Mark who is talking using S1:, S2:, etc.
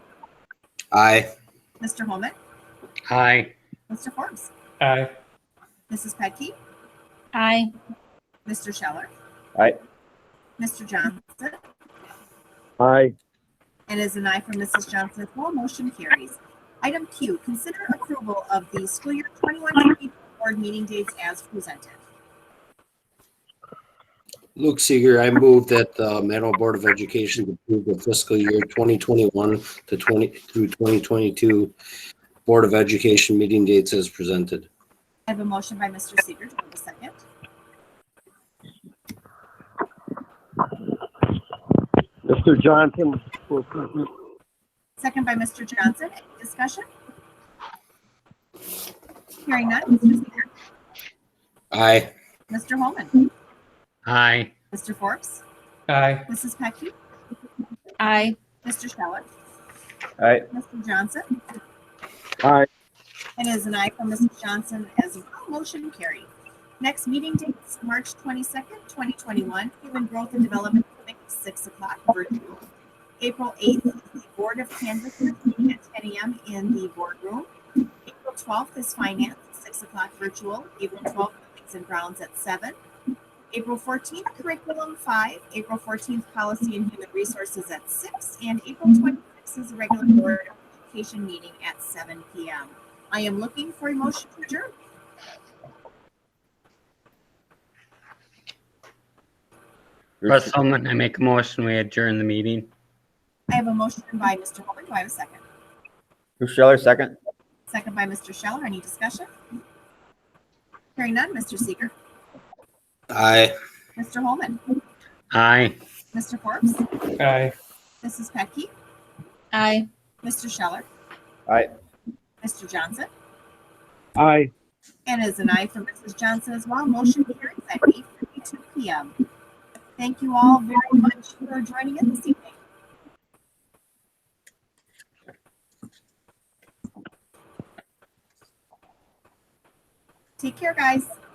S1: Aye.
S2: Mr. Holman,
S3: Aye.
S2: Mr. Forbes,
S3: Aye.
S2: Mrs. Petke,
S4: Aye.
S2: Mr. Scheller.
S5: Aye.
S2: Mr. Johnson,
S5: Aye.
S2: It is an aye from Mrs. Johnson as well. Motion carries. Item Q, consider approval of the school year 21-22 board meeting dates as presented.
S1: Luke Seeger, I move that the Manawha Board of Education approve the fiscal year 2021 to 20 through 2022 Board of Education meeting dates as presented.
S2: I have a motion by Mr. Seeger. Do I have a second?
S5: Mr. Johnson will present.
S2: Second by Mr. Johnson. Any discussion? Hearing none. Mr. Seeger,
S1: Aye.
S2: Mr. Holman,
S3: Aye.
S2: Mr. Forbes,
S3: Aye.
S2: Mrs. Pecky,
S4: Aye.
S2: Mr. Scheller,
S5: Aye.
S2: Mr. Johnson.
S5: Aye.
S2: It is an aye from Mrs. Johnson as well. Motion carried. Next meeting dates, March twenty-second, twenty twenty-one, Human Growth and Development Clinic, six o'clock virtual. April eighth, the Board of Canvassers meeting at ten AM in the boardroom. April twelfth is Finance, six o'clock virtual. April twelfth, Buildings and Grounds at seven. April fourteenth, Curriculum five. April fourteenth, Policy and Human Resources at six. And April twenty-sixth is the regular Board of Education meeting at seven PM. I am looking for a motion to adjourn.
S3: Russ Holman, I make a motion, we adjourn the meeting.
S2: I have a motion by Mr. Holman. Do I have a second?
S6: Bruce Scheller, second.
S2: Second by Mr. Scheller. Any discussion? Hearing none, Mr. Seeger,
S1: Aye.
S2: Mr. Holman,
S3: Aye.
S2: Mr. Forbes,
S3: Aye.
S2: Mrs. Petke,
S4: Aye.
S2: Mr. Scheller.
S6: Aye.
S2: Mr. Johnson,
S5: Aye.
S2: and as an aye from Mrs. Johnson as well, motion carries at eight fifty-two PM. Thank you all very much for joining us this evening. Take care, guys.